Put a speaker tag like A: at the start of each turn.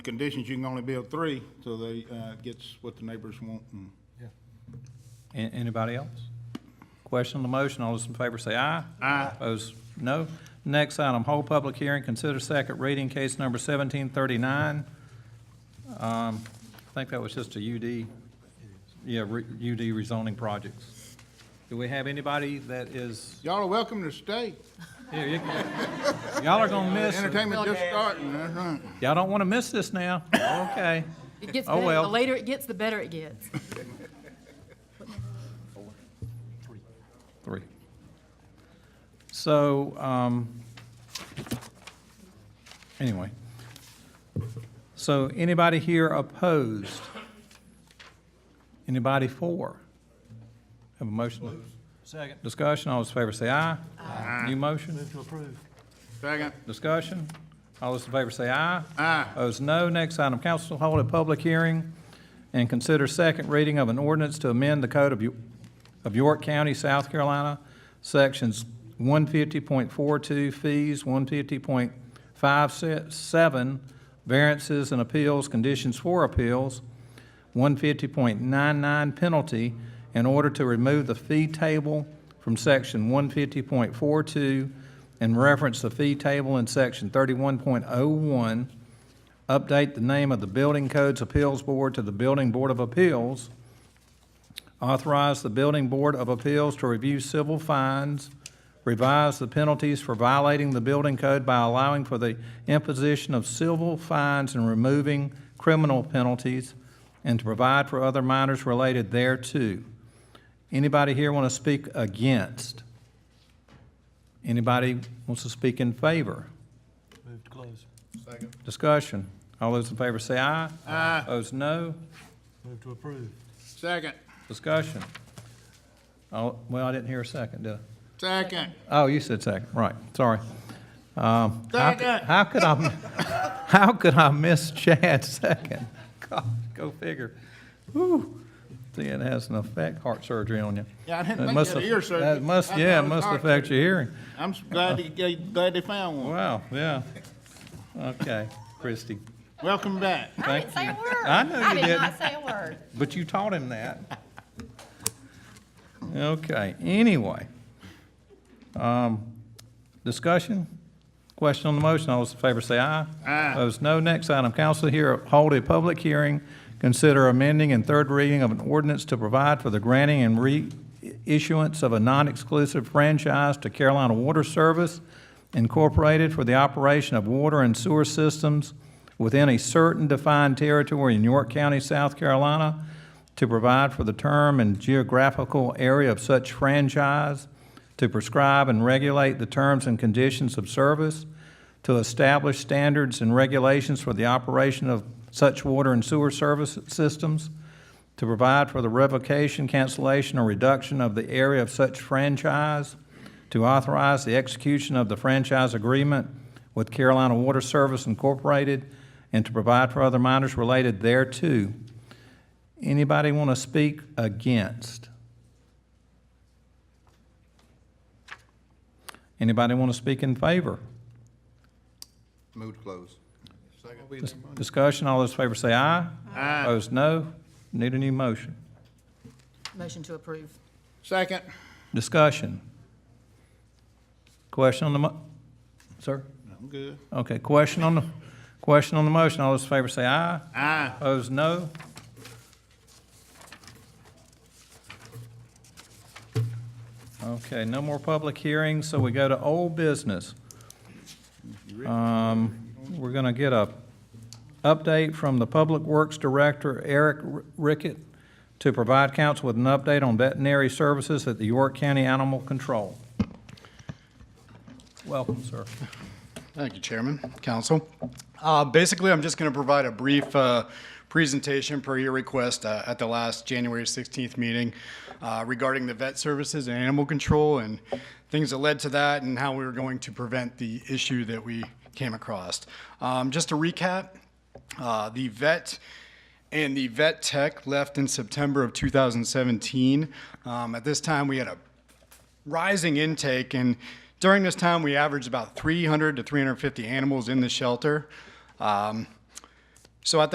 A: conditions, you can only build three, so they, uh, gets what the neighbors want. and-
B: An- Anybody else? Question on the motion, all those in favor say aye.
A: Aye.
B: Opposed, no. Next item, hold public hearing, consider second reading, case number 1739. Um, I think that was just a UD, yeah, re- UD rezoning projects. Do we have anybody that is,
A: Y'all are welcome to stay.
B: here, you can- y'all are gonna miss it.
A: Entertainment just starting, that's right.
B: Y'all don't wanna miss this now, okay.
C: It gets
B: Oh,
C: better.
B: well.
C: The later it gets, the better it gets.
B: Three. So, um, anyway. So anybody here opposed? Anybody for? Have a motion? Second. Discussion, all those in favor say aye. Aye. New motion?
A: Second,
B: Discussion, all those in favor say aye.
A: aye,
B: Opposed, no. Next item, council hold a public hearing and consider second reading of an ordinance to amend the Code of Yo- of York County, South Carolina, Sections 150.42 fees, 150.57 variances and appeals, conditions for appeals, 150.99 penalty in order to remove the fee table from section 150.42 and reference the fee table in section 31.01, update the name of the Building Codes Appeals Board to the Building Board of Appeals, authorize the Building Board of Appeals to review civil fines, revise the penalties for violating the building code by allowing for the imposition of civil fines and removing criminal penalties, and to provide for other matters related thereto. Anybody here want to speak against? Anybody wants to speak in favor?
D: Move to close.
B: Discussion. All those in favor say aye.
A: aye,
B: Opposed, no.
D: Move to approve.
A: second,
B: Discussion. Oh, well, I didn't hear a second, did I?
A: second,
B: Oh, you said second, right, sorry. Um, how could-
A: Second.
B: How could I, how could I miss Chad's second? God, go figure. Whew, see, it has an effect, heart surgery on you.
A: Yeah, I didn't
B: It
A: think you
B: must
A: had
B: aff-
A: ear surgery.
B: That must,
A: I
B: yeah,
A: thought
B: it
A: it was
B: must
A: heart
B: affect your hearing.
A: I'm s- glad they, glad they found one.
B: Wow, yeah. Okay, Christie,
A: Welcome back.
E: I
B: thank
E: didn't say
B: you.
E: a word.
B: I know you
E: I did
B: didn't,
E: not say a word.
B: but you taught him that. Okay, anyway. Um, Discussion? Question on the motion, all those in favor say aye.
A: Aye.
B: Opposed, no. Next item, council here hold a public hearing, consider amending and third reading of an ordinance to provide for the granting and reissuance of a non-exclusive franchise to Carolina Water Service Incorporated for the operation of water and sewer systems within a certain defined territory in York County, South Carolina, to provide for the term and geographical area of such franchise, to prescribe and regulate the terms and conditions of service, to establish standards and regulations for the operation of such water and sewer service systems, to provide for the revocation, cancellation, or reduction of the area of such franchise, to authorize the execution of the franchise agreement with Carolina Water Service Incorporated, and to provide for other matters related thereto. Anybody want to speak against? Anybody want to speak in favor?
F: Move to close. Second.
B: Dis- Discussion, all those in favor say aye.
A: Aye.
B: Opposed, no. Need a new motion.
C: Motion to approve.
A: Second,
B: Discussion. Question on the mo, sir?
A: I'm good,
B: Okay, question on the, question on the motion, all those in favor say aye.
A: aye,
B: Opposed, no. Okay, no more public hearings, so we go to old business. Um, We're going to get a update from the Public Works Director, Eric Rickett, to provide council with an update on veterinary services at the York County Animal Control. Welcome, sir.
G: Thank you, Chairman, Council. Uh, Basically, I'm just going to provide a brief uh, presentation per your request uh, at the last January 16th meeting uh, regarding the vet services and animal control and things that led to that and how we were going to prevent the issue that we came across. Um, Just to recap, uh, the vet and the vet tech left in September of 2017. Um, At this time, we had a rising intake and during this time we averaged about 300 to 350 animals in the shelter um, So at